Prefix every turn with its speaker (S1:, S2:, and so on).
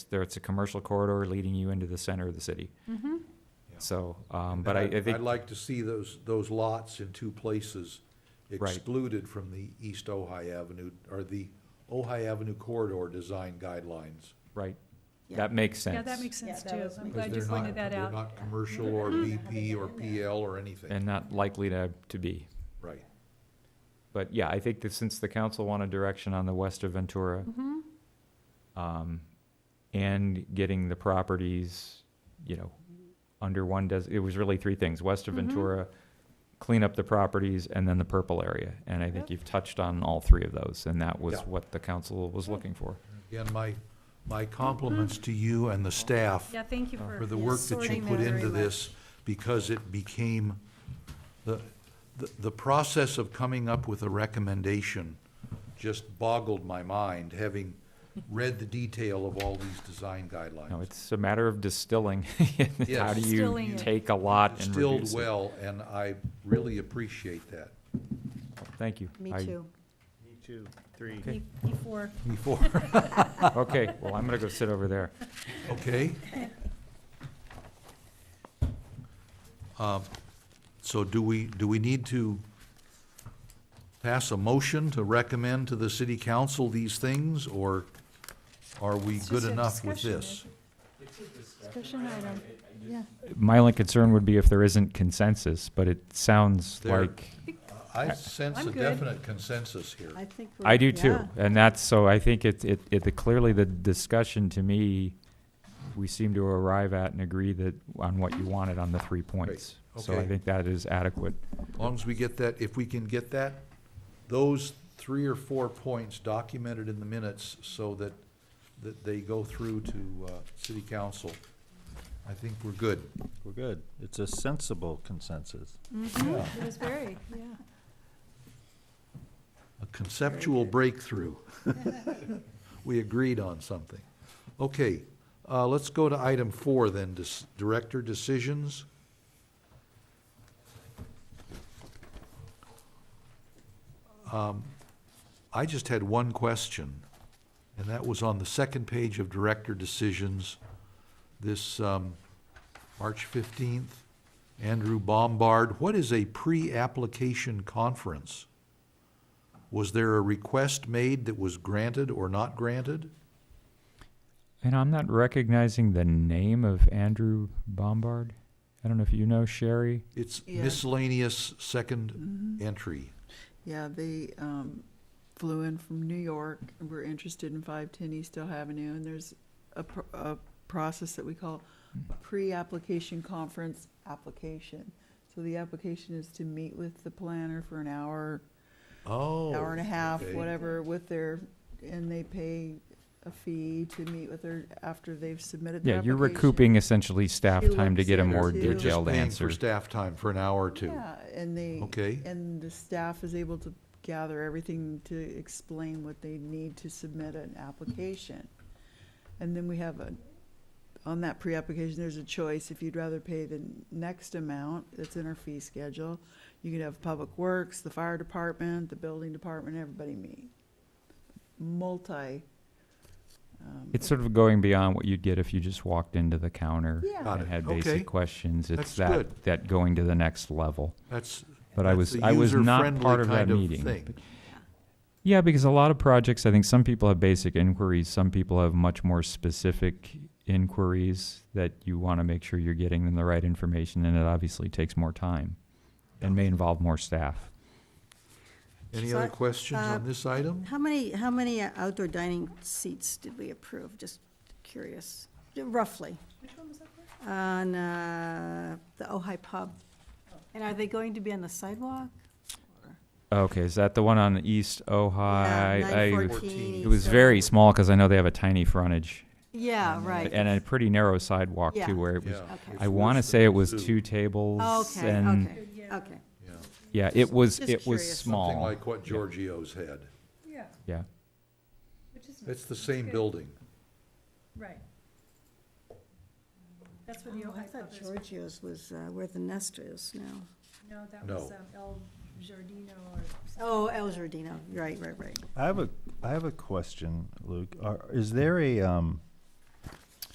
S1: there, it's a commercial corridor leading you into the center of the city.
S2: Mm-hmm.
S1: So, um, but I, I
S3: And I'd
S1: think,
S3: like to see those, those lots in two places
S1: Right.
S3: excluded from the East Ojai Avenue, or the Ojai Avenue corridor design guidelines.
S1: right,
S4: Yeah.
S1: that makes sense.
S2: Yeah, that makes sense
S4: that
S2: too.
S4: was my
S2: I'm
S3: because
S2: glad you
S3: they're
S2: pointed
S3: not-
S2: that
S3: They're
S2: out.
S3: not commercial or BP or PL or anything,
S1: And not likely to, to be.
S3: right.
S1: But yeah, I think that since the council wanted direction on the west of Ventura,
S2: Mm-hmm.
S1: um, and getting the properties, you know, under one does, it was really three things, west of
S2: Mhm.
S1: Ventura, clean up the properties, and then the purple area. And I think
S2: Yep.
S1: you've touched on all three of those, and that was
S3: Yeah.
S1: what the council was looking for.
S3: Again, my, my compliments to you and the staff
S2: Yeah, thank you for.
S3: for the work that you
S2: sorting
S3: put
S2: that
S3: into
S2: very
S3: this, because it became, the, the, the process of coming up with a recommendation just boggled my mind, having read the detail of all these design
S1: No,
S3: guidelines.
S1: it's a matter of distilling. and How
S3: Yes.
S1: do
S2: Distilling
S1: you
S2: it.
S1: take a lot and
S3: Distilled
S1: reduce it?
S3: well, and I really appreciate that.
S1: Thank you.
S4: Me
S1: I-
S4: too.
S5: Me too, three.
S2: much. E- E4.
S3: Before,
S1: Okay, well, I'm gonna go sit over there.
S3: okay? Um, So do we, do we need to pass a motion to recommend to the city council these things, or are we
S2: It's
S3: good
S2: just a
S3: enough with
S2: discussion,
S3: this?
S2: Discussion item. Yeah.
S1: My only concern would be if there isn't consensus, but it sounds
S3: There-
S1: like,
S3: I sense
S2: I'm
S3: a
S2: good.
S3: definite consensus here.
S4: I think.
S1: I
S4: we're-
S1: do too.
S4: yeah.
S1: And that's, so I think it, it, it, clearly the discussion to me, we seem to arrive at and agree that, on what you wanted on the three points. So I
S3: okay.
S1: think that is adequate.
S3: As long as we get that, if we can get that, those three or four points documented in the minutes so that, that they go through to, uh, city council, I think we're good.
S5: We're good. It's a sensible consensus.
S4: Mm-hmm.
S2: It was very, yeah.
S3: A conceptual breakthrough. We agreed on something. Okay, uh, let's go to item four then, dis- director decisions. Um, I just had one question, and that was on the second page of director decisions, this, um, March fifteenth, Andrew Bombard, what is a pre-application conference? Was there a request made that was granted or not granted?
S1: And I'm not recognizing the name of Andrew Bombard. I don't know if you know Sherry.
S3: It's
S4: Yeah.
S3: miscellaneous second
S4: Mm-hmm.
S3: entry.
S6: Yeah, they um, flew in from New York, and we're interested in 510 East Hill Avenue, and there's a, pr- a process that we call a pre-application conference application. So the application is to meet with the planner for an hour,
S3: Oh.
S6: hour and a half,
S3: okay.
S6: whatever, with their, and they pay a fee to meet with their, after they've submitted their
S1: Yeah, you're
S6: application.
S1: recouping essentially staff
S6: She
S1: time to
S6: looks
S1: get a
S6: at it
S1: more
S6: too.
S3: You're just
S1: detailed
S3: paying
S1: answer.
S3: For staff time for an hour or two.
S6: Yeah, and they.
S3: Okay.
S6: And the staff is able to gather everything to explain what they need to submit an application. And then we have a, on that pre-application, there's a choice, if you'd rather pay the next amount that's in our fee schedule, you could have Public Works, the fire department, the building department, everybody meet. Multi. um,
S1: It's sort of going beyond what you'd get if you just walked into the counter
S6: Yeah.
S3: Got
S1: and
S3: it.
S1: had
S3: Okay.
S1: basic questions. It's
S3: That's
S1: that,
S3: good.
S1: that going to the next level.
S3: That's.
S1: But I
S3: that's
S1: was,
S3: a
S1: I was not
S3: user-friendly
S1: part of that
S3: kind
S1: meeting.
S3: thing.
S1: but- Yeah, because a lot of projects, I think some people have basic inquiries, some people have much more specific inquiries that you want to make sure you're getting them the right information, and it obviously takes more time and may involve more staff.
S3: Any
S4: So,
S3: other questions
S4: uh,
S3: on this item?
S4: How many, how many uh, outdoor dining seats did we approve? Just curious, roughly. Which one was that? On uh, the Ojai Pub.
S2: Oh.
S4: And are they going to be on the sidewalk?
S1: Okay, is that the one on East
S4: Uh,
S1: Ojai?
S4: Yeah,
S1: I-
S4: 914
S1: It was
S4: East
S1: very
S4: Ojai.
S1: small because I know they have a tiny frontage
S4: Yeah, right.
S1: and a pretty narrow sidewalk
S4: Yeah.
S1: too, where it was.
S3: Yeah,
S4: Okay.
S3: it's
S1: I want to
S3: worse
S1: say
S3: than
S1: it was
S3: the zoo.
S1: two tables
S4: Okay,
S1: and
S4: okay,
S2: Yeah.
S4: okay.
S3: Yeah.
S1: yeah, it was
S4: Just
S1: it was
S4: curious.
S3: Something
S1: small.
S3: like what Giorgio's had.
S2: Yeah,
S1: Yeah.
S2: which is,
S3: It's the same
S2: Good.
S3: building.
S2: right. That's what the
S4: Oh, I
S2: Ojai
S4: thought
S2: Pub is.
S4: Giorgio's was uh, where the nest is now.
S2: No, that
S3: No.
S2: was um, El Giardino or something.
S4: Oh, El Giardino, right, right, right.
S5: I have a, I have a question, Luke. Are, is there a, um,